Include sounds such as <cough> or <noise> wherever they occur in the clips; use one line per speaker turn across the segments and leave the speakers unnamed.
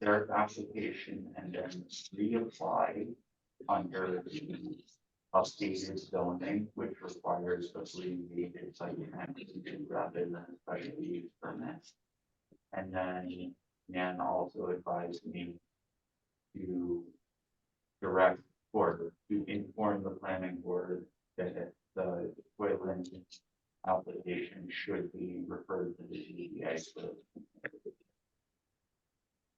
their application and then reapply under the updated zoning, which requires a three-year site plan review rather than a special use permit. And then Nan also advised me to direct or to inform the planning board that the wetland application should be referred to the ZBA for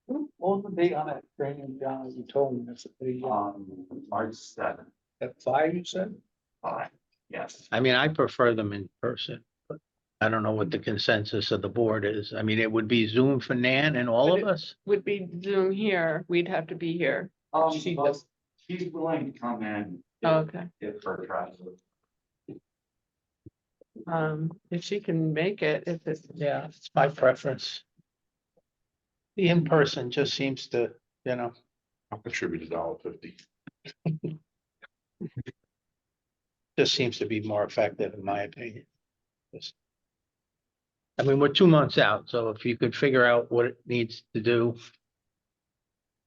What was the date on that training, John, as you told me, that's pretty,
Uh,
Um, March seventh,
at five, you said?
five, yes.
I mean, I prefer them in person, but I don't know what the consensus of the board is. I mean, it would be Zoom for Nan and all
But
of us.
would be Zoom here, we'd have to be here.
Um,
She
but
does-
she's willing to come in if-
Oh, Okay,
if her travel.
um, if she can make it, if it's.
Yeah, it's my preference. The in-person just seems to, you know,
I'll contribute a dollar fifty.
just seems to be more effective in my opinion. Just- I mean, we're two months out, so if you could figure out what it needs to do,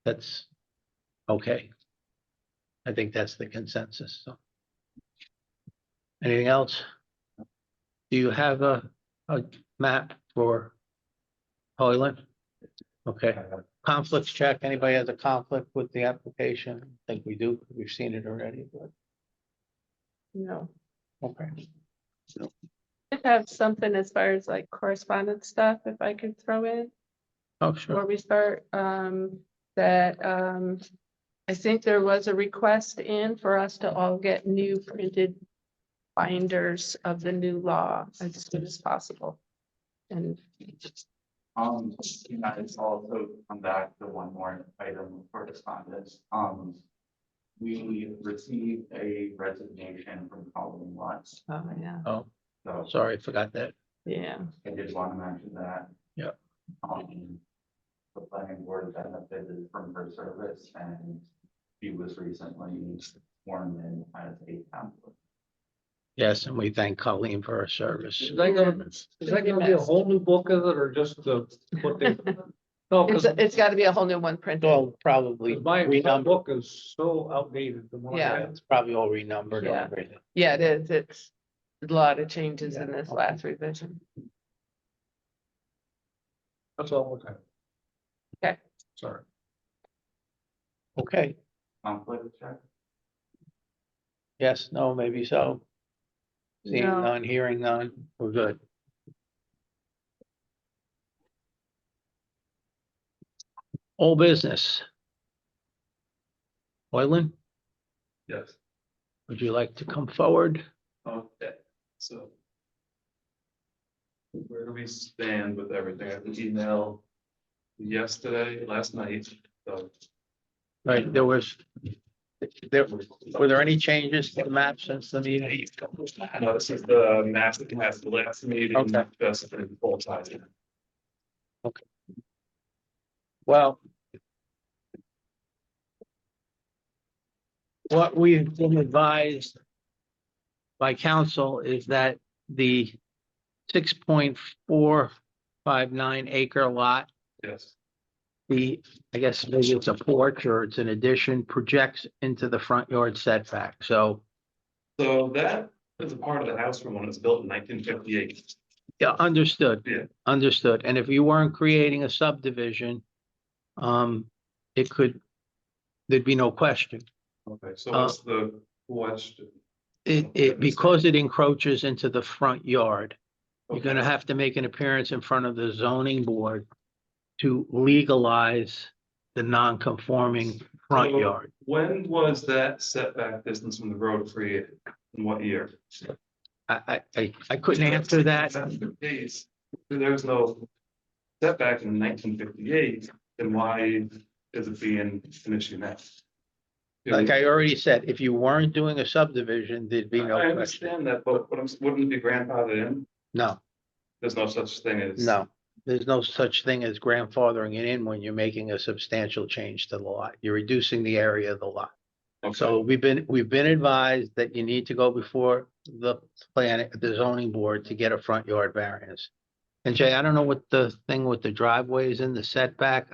that's okay. I think that's the consensus, so. Anything else? Do you have a, a map for Hoyland? Okay, conflicts check. Anybody has a conflict with the application? I think we do. We've seen it already, but,
No,
okay.
I have something as far as like correspondence stuff, if I could throw in.
Oh, sure.
before we start, um, that, um, I think there was a request in for us to all get new printed binders of the new law as soon as possible. And
Um, and I just also come back to one more item of correspondence, um. We received a resignation from Colleen Lutz,
Oh, yeah,
Oh,
so
sorry, forgot that.
yeah,
I did want to mention that.
Yep.
Um, the planning board benefited from her service and she was recently sworn in as a council.
Yes, and we thank Colleen for her service.
Is that gonna, is that gonna be a whole new book of it, or just the, what <laughs> they? No,
it's,
cause
it's gotta be a whole new one printed,
Well, probably
my, my
renumbered,
book is so outdated. the more I
Yeah.
have.
it's probably all renumbered and
Yeah.
everything.
yeah, it is, it's a lot of changes in
Yeah,
this
okay.
last revision.
That's all, okay.
Okay.
Sorry.
Okay,
Conflict check?
yes, no, maybe so. Seeing
No.
none, hearing none, we're good. All business. Boylan,
Yes.
would you like to come forward?
Okay, so. Where do we stand with everything? I have an email yesterday, last night, so.
Right, there was. There, were there any changes to the map since the meeting?
No, this is the map that has the last meeting.
Okay.
That's been full size.
Well. What we've been advised. By council is that the six point four five nine acre lot.
Yes,
The, I guess maybe it's a porch or it's an addition projects into the front yard setback, so.
so that is a part of the house from when it was built in nineteen fifty-eight.
Yeah, understood.
Yeah.
Understood. And if you weren't creating a subdivision. Um, it could. There'd be no question.
Okay,
Uh,
so what's the question?
It,
Okay,
it,
that's
because it encroaches into the front yard, you're
Okay.
gonna have to make an appearance in front of the zoning board to legalize the non-conforming front
So-
yard.
When was that setback distance from the road created? In what year?
I, I, I, I couldn't answer that.
If that's the case, if there was no setback in nineteen fifty-eight, then why is it being an issue now?
Like I already said, if you weren't doing a subdivision, there'd
I
be no question.
understand that, but what I'm, wouldn't it be grandfathered in?
No,
There's no such thing as.
no. There's no such thing as grandfathering it in when you're making a substantial change to the lot. You're reducing the area of the lot.
Okay.
So we've been, we've been advised that you need to go before the plan, the zoning board to get a front yard variance. And Jay, I don't know what the thing with the driveway is in the setback.